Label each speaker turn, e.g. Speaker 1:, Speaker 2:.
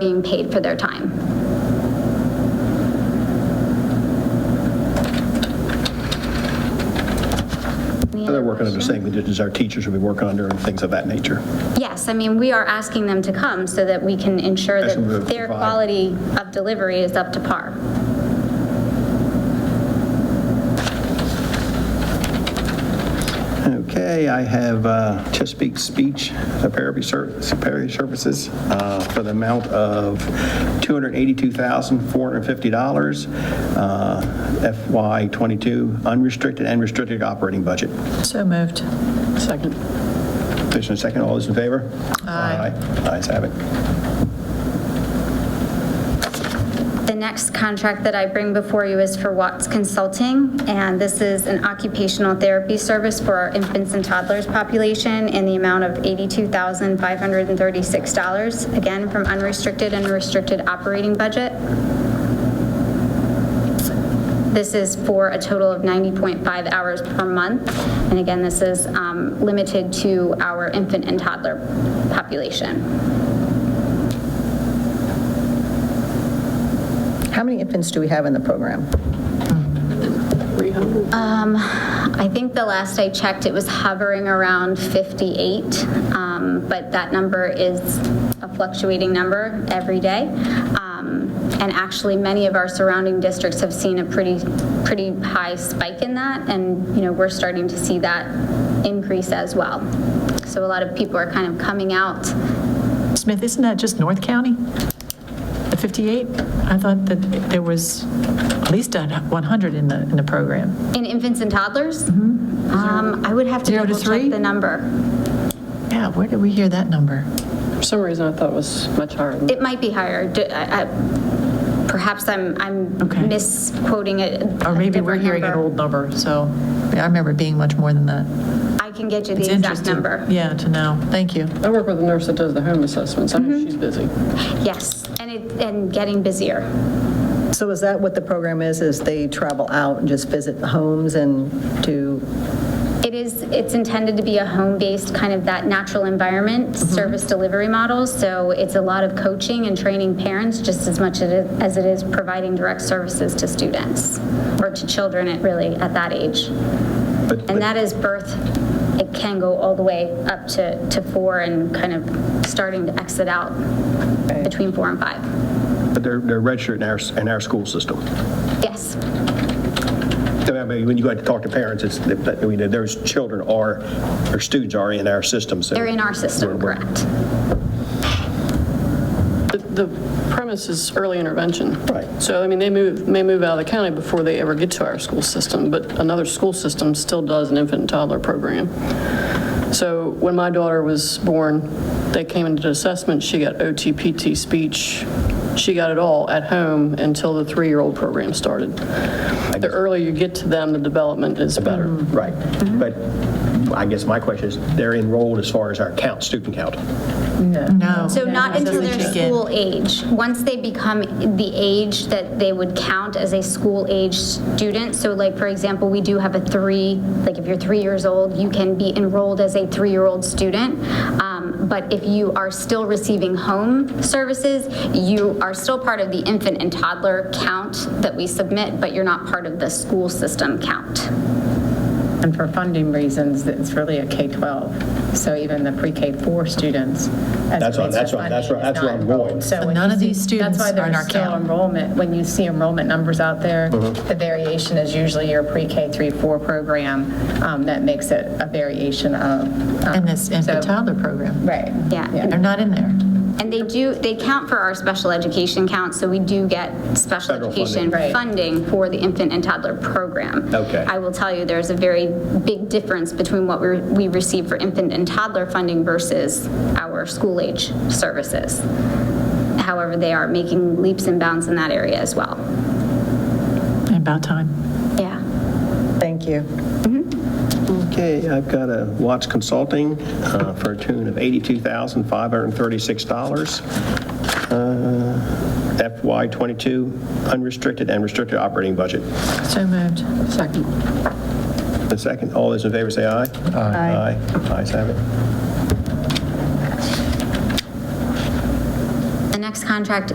Speaker 1: being paid for their time.
Speaker 2: They're working under the same conditions our teachers would be working under and things of that nature.
Speaker 1: Yes, I mean, we are asking them to come so that we can ensure
Speaker 2: Ask them to
Speaker 1: that their
Speaker 2: provide.
Speaker 1: quality of delivery is up to par.
Speaker 2: Okay, I have uh, Chesapeake Speech Therapy Ser- Therapy Services uh, for the amount of $282,450, uh, FY '22 unrestricted and restricted operating budget.
Speaker 3: So moved. Second.
Speaker 2: Motion and second, all those in favor?
Speaker 3: Aye.
Speaker 2: Aye. Ayes have it.
Speaker 1: The next contract that I bring before you is for Watts Consulting, and this is an occupational therapy service for our infants and toddlers population in the amount of $82,536, again, from unrestricted and restricted operating budget. This is for a total of 90.5 hours per month, and again, this is um, limited to our infant and toddler population.
Speaker 4: How many infants do we have in the program?
Speaker 1: I think the last I checked, it was hovering around 58, um, but that number is a fluctuating number every day. Um, And actually, many of our surrounding districts have seen a pretty, pretty high spike in that, and, you know, we're starting to see that increase as well. So a lot of people are kind of coming out.
Speaker 3: Smith, isn't that just North County? The 58? I thought that there was at least a 100 in the, in the program.
Speaker 1: In infants and toddlers, Um, I would have to
Speaker 3: Mm-hmm. Zero to
Speaker 1: double
Speaker 3: three?
Speaker 1: check the number.
Speaker 3: Yeah, where did we hear that number?
Speaker 5: For some reason, I thought it was much higher than that.
Speaker 1: It might be higher. Do- I- I- Perhaps I'm, I'm
Speaker 3: Okay.
Speaker 1: misquoting it.
Speaker 3: Or maybe we're hearing an old number, so yeah, I remember it being much more than that.
Speaker 1: I can get you
Speaker 3: It's
Speaker 1: the exact
Speaker 3: interesting-
Speaker 1: number.
Speaker 3: Yeah, to know. Thank you.
Speaker 5: I work with a nurse that does the home assessments. I know she's busy.
Speaker 1: Yes, and it, and getting busier.
Speaker 4: So is that what the program is, is they travel out and just visit the homes and do,
Speaker 1: It is, it's intended to be a home-based, kind of that natural
Speaker 2: Mm-hmm.
Speaker 1: environment, service delivery model, so it's a lot of coaching and training parents just as much as it- as it is providing direct services to students, or to children at really, at that age.
Speaker 2: But-
Speaker 1: And that is birth, it can go all the way up to, to four and kind of starting to exit out between four and five.
Speaker 2: But they're they're registered in our, in our school system.
Speaker 1: Yes,
Speaker 2: I mean, When you go out to talk to parents, it's, I mean, those children are, or students are in our system, so.
Speaker 1: they're in our system,
Speaker 2: We're- we're-
Speaker 1: correct.
Speaker 5: The- The premise is early intervention.
Speaker 2: Right.
Speaker 5: So, I mean, they move, may move out of the county before they ever get to our school system, but another school system still does an infant and toddler program. So when my daughter was born, they came into assessment, she got OT, PT, speech, she got it all at home until the three-year-old program started. The earlier you get to them, the development is better.
Speaker 2: Right. But I guess my question is, they're enrolled as far as our count, student count?
Speaker 3: No.
Speaker 1: So not until
Speaker 3: doesn't
Speaker 1: they're
Speaker 3: kick in.
Speaker 1: school age. Once they become the age that they would count as a school age student, so like, for example, we do have a three, like if you're three years old, you can be enrolled as a three-year-old student. Um, But if you are still receiving home services, you are still part of the infant and toddler count that we submit, but you're not part of the school system count.
Speaker 6: And for funding reasons, it's really a K-12. So even the pre-K-4 students.
Speaker 2: That's what- that's what- that's where- that's where I'm going.
Speaker 6: So
Speaker 3: none of these students are in our
Speaker 6: That's why there's still
Speaker 3: camp.
Speaker 6: enrollment, when you see enrollment numbers out there,
Speaker 2: Mm-hmm.
Speaker 6: the variation is usually your pre-K through 4 program um, that makes it a variation of.
Speaker 1: Uh,
Speaker 6: um,
Speaker 3: In this infant
Speaker 6: so-
Speaker 3: toddler program.
Speaker 6: Right.
Speaker 1: Yeah.
Speaker 3: They're not in there.
Speaker 1: And they do, they count for our special education count, so we do get special
Speaker 2: Federal
Speaker 1: education
Speaker 6: funding. Right.
Speaker 1: funding for the infant and toddler program.
Speaker 2: Okay.
Speaker 1: I will tell you, there's a very big difference between what we we receive for infant and toddler funding versus our school-age services. However, they are making leaps and bounds in that area as well.
Speaker 3: About time.
Speaker 1: Yeah.
Speaker 4: thank you.
Speaker 2: Okay, I've got a Watts Consulting uh, for a tune of $82,536. FY '22 unrestricted and restricted operating budget.
Speaker 3: So moved.
Speaker 5: Second.
Speaker 2: The second, all those in favor say aye. Aye. Aye. Ayes have it.
Speaker 1: The next contract